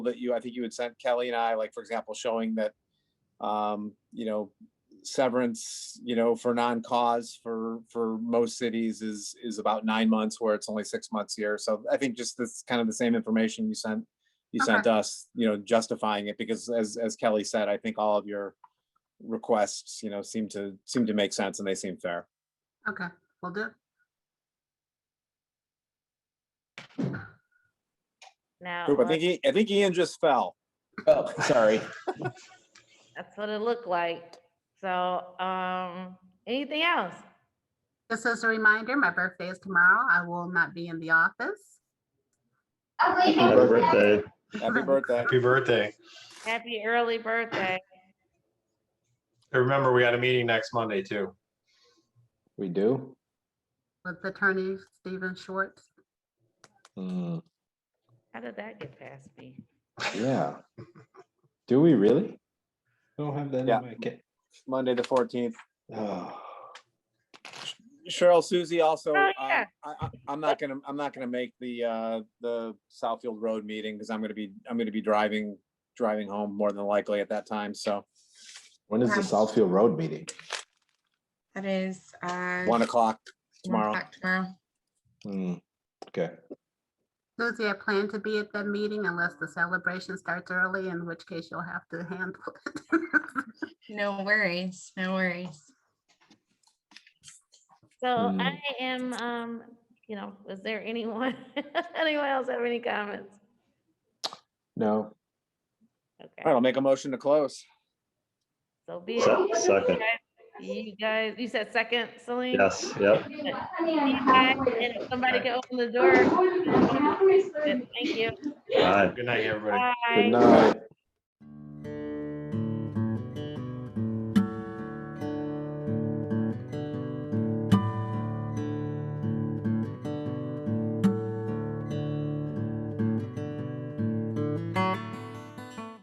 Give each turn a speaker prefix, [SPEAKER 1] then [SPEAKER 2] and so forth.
[SPEAKER 1] that you, I think you had sent Kelly and I, like, for example, showing that, um, you know, severance, you know, for non-cause for, for most cities is, is about nine months where it's only six months here. So I think just this kind of the same information you sent, you
[SPEAKER 2] Okay.
[SPEAKER 1] sent us, you know, justifying it because as, as Kelly said, I think all of your requests, you know, seem to, seem to make sense and they seem fair.
[SPEAKER 2] Okay, will do.
[SPEAKER 3] Now,
[SPEAKER 1] Coop, I
[SPEAKER 3] let's-
[SPEAKER 1] think, I- I think Ian just fell.
[SPEAKER 4] Oh, sorry.
[SPEAKER 3] that's what it looked like. So, um, anything else?
[SPEAKER 2] Just as a reminder, my birthday is tomorrow. I will not be in the office.
[SPEAKER 5] Happy birthday.
[SPEAKER 1] Happy birthday.
[SPEAKER 5] Happy birthday.
[SPEAKER 3] Happy early birthday.
[SPEAKER 5] And remember, we got a meeting next Monday too.
[SPEAKER 4] We do?
[SPEAKER 2] With Attorney Stephen Schwartz.
[SPEAKER 4] Hmm,
[SPEAKER 3] How did that get past me?
[SPEAKER 4] yeah. Do we really? Don't have that in
[SPEAKER 1] Yeah.
[SPEAKER 4] my kit.
[SPEAKER 1] Monday, the fourteenth.
[SPEAKER 4] Oh,
[SPEAKER 1] Cheryl, Susie, also,
[SPEAKER 3] Oh,
[SPEAKER 1] um,
[SPEAKER 3] yeah.
[SPEAKER 1] I, I, I'm not gonna, I'm not gonna make the, uh, the Southfield Road meeting because I'm gonna be, I'm gonna be driving, driving home more than likely at that time. So
[SPEAKER 4] When is the
[SPEAKER 6] Yeah.
[SPEAKER 4] Southfield Road meeting?
[SPEAKER 6] That is, uh.
[SPEAKER 1] one o'clock
[SPEAKER 6] one
[SPEAKER 1] tomorrow.
[SPEAKER 6] o'clock Tomorrow.
[SPEAKER 4] Hmm, okay.
[SPEAKER 2] Susie, I plan to be at that meeting unless the celebration starts early, in which case you'll have to handle it.
[SPEAKER 6] No worries, no worries.
[SPEAKER 3] So
[SPEAKER 4] Mm.
[SPEAKER 3] I am, um, you know, is there anyone, anyone else have any comments?
[SPEAKER 4] No,
[SPEAKER 1] All right,
[SPEAKER 3] Okay,
[SPEAKER 1] I'll make a motion to close.
[SPEAKER 3] so be it.
[SPEAKER 5] Se- Second,
[SPEAKER 3] You guys, you said second, Celine?
[SPEAKER 5] yes, yep.
[SPEAKER 3] You guys, and if Somebody can open the door. Good, Thank you.
[SPEAKER 5] All right. Good night, everybody.
[SPEAKER 4] good
[SPEAKER 3] Bye.
[SPEAKER 4] night.